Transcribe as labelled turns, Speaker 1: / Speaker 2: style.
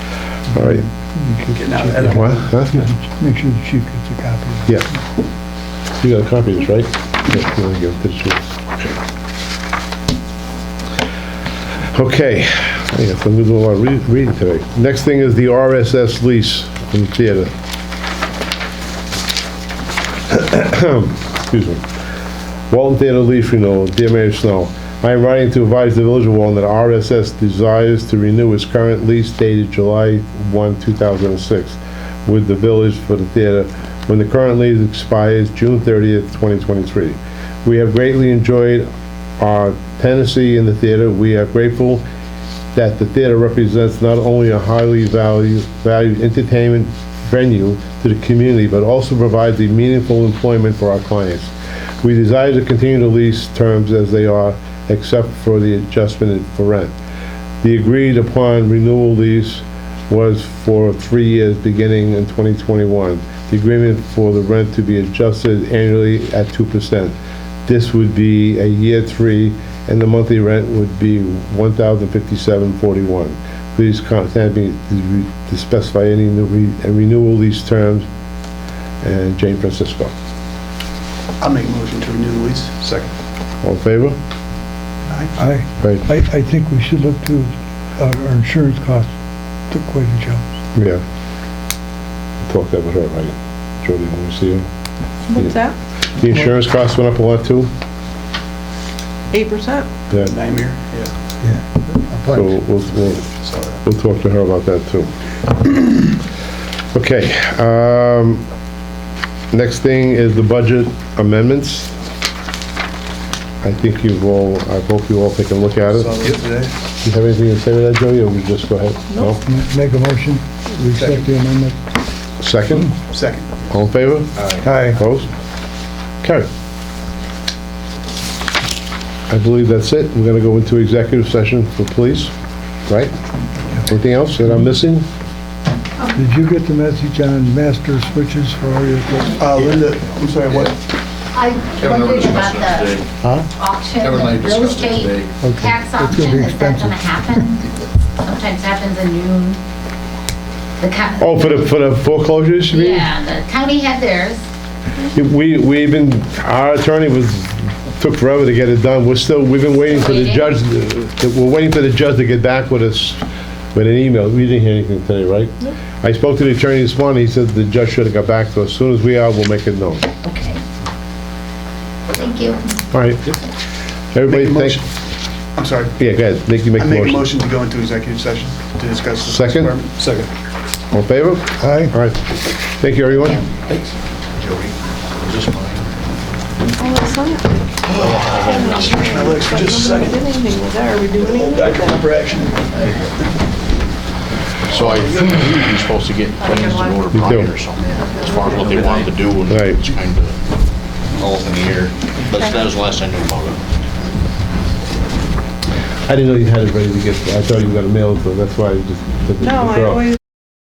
Speaker 1: all right. What? Huh?
Speaker 2: Make sure the chief gets a copy. of it.
Speaker 1: Yeah. You got a copy of this, right? Yeah, you wanna give it to the chief. Okay, yeah, so I'm gonna do a lot of rea- reading today. Next thing is the RSS lease from the theater. Excuse me. Walton Theater lease renewal, dear Mayor Snow. I am writing to advise the village of Walton that RSS desires to renew its current lease dated July 1, 2006 with the village for the theater when the current lease expires June 30th, 2023. We have greatly enjoyed our tenancy in the theater. We are grateful that the theater represents not only a highly valued, valued entertainment venue to the community, but also provides a meaningful employment for our clients. We desire to continue the lease terms as they are, except for the adjustment for rent. The agreed upon renewal lease was for three years, beginning in 2021. The agreement for the rent to be adjusted annually at 2%. This would be a year three, and the monthly rent would be $1,057.41. Please contact me to re- to specify any new re- uh, renewal lease terms. And Jane Francisco.
Speaker 3: I'll make a motion to renew the lease. Second.
Speaker 1: All in favor?
Speaker 2: I,
Speaker 1: Right,
Speaker 2: I, I think we should look to, our our insurance costs took quite a jump.
Speaker 1: yeah. Talk that with her, right? Jody, when we see her.
Speaker 4: What's that?
Speaker 1: The insurance costs went up a lot too?
Speaker 4: Eight percent?
Speaker 1: Yeah.
Speaker 3: Nightmare? Yeah.
Speaker 1: So we'll, we'll,
Speaker 3: Sorry.
Speaker 1: we'll talk to her about that too. Okay, um, next thing is the budget amendments. I think you've all, I hope you all take a look at it.
Speaker 3: Saw those today?
Speaker 1: Do you have anything to say to that, Joey, or we just go ahead? No.
Speaker 2: Make a motion, we accept the amendment.
Speaker 1: Second,
Speaker 3: Second.
Speaker 1: all in favor?
Speaker 2: Aye.
Speaker 1: Opposed? Carry. I believe that's it. We're gonna go into executive session for police, right? Anything else that I'm missing?
Speaker 2: Did you get the message on master switches for all your equipment?
Speaker 3: Uh, Linda, I'm sorry, what?
Speaker 5: I
Speaker 6: Kevin and I
Speaker 5: wondered about
Speaker 6: discussed it
Speaker 5: the
Speaker 6: today.
Speaker 5: auction,
Speaker 6: Kevin and I
Speaker 5: the real
Speaker 6: discussed it
Speaker 5: estate
Speaker 6: today.
Speaker 2: Okay.
Speaker 5: tax
Speaker 2: It's gonna be
Speaker 5: auction, is that
Speaker 2: expensive.
Speaker 5: gonna happen? Sometimes happens in June. The county.
Speaker 1: Oh, for the, for the foreclosures, you mean?
Speaker 5: Yeah, the county had theirs.
Speaker 1: We, we even, our attorney was, took forever to get it done. We're still, we've been waiting for the
Speaker 5: Waiting?
Speaker 1: judge, uh, we're waiting for the judge to get back with us with an email. We didn't hear anything today, right? I spoke to the attorney this morning, he said the judge should have got back to us. As soon as we are, we'll make it known.
Speaker 5: Okay. Thank you.
Speaker 1: All right. Everybody, thank,
Speaker 3: Make a motion. I'm sorry.
Speaker 1: yeah, go ahead, Nick, you make
Speaker 3: I
Speaker 1: the
Speaker 3: make a
Speaker 1: motion.
Speaker 3: motion to go into executive session to discuss. the
Speaker 1: Second?
Speaker 3: department. Second.
Speaker 1: All in favor?
Speaker 2: Aye.
Speaker 1: All right. Thank you, everyone.
Speaker 6: Thanks. Joey, is this mine?
Speaker 4: Oh, it's not.
Speaker 3: Now, Lex, for just a second.
Speaker 4: Nobody did anything with that. Are we doing anything
Speaker 3: Back to
Speaker 4: with that?
Speaker 3: number action.
Speaker 6: So I think you're supposed to get plans in order
Speaker 1: You
Speaker 6: prior
Speaker 1: do.
Speaker 6: or something, as far as what they wanted to do, and
Speaker 1: Right.
Speaker 6: it's kind of all in the air. That's, that was the last I knew about it.
Speaker 1: I didn't know you had it ready to get, I thought you were gonna mail it, so that's why I just took it to the
Speaker 4: No, I
Speaker 1: girl.
Speaker 4: always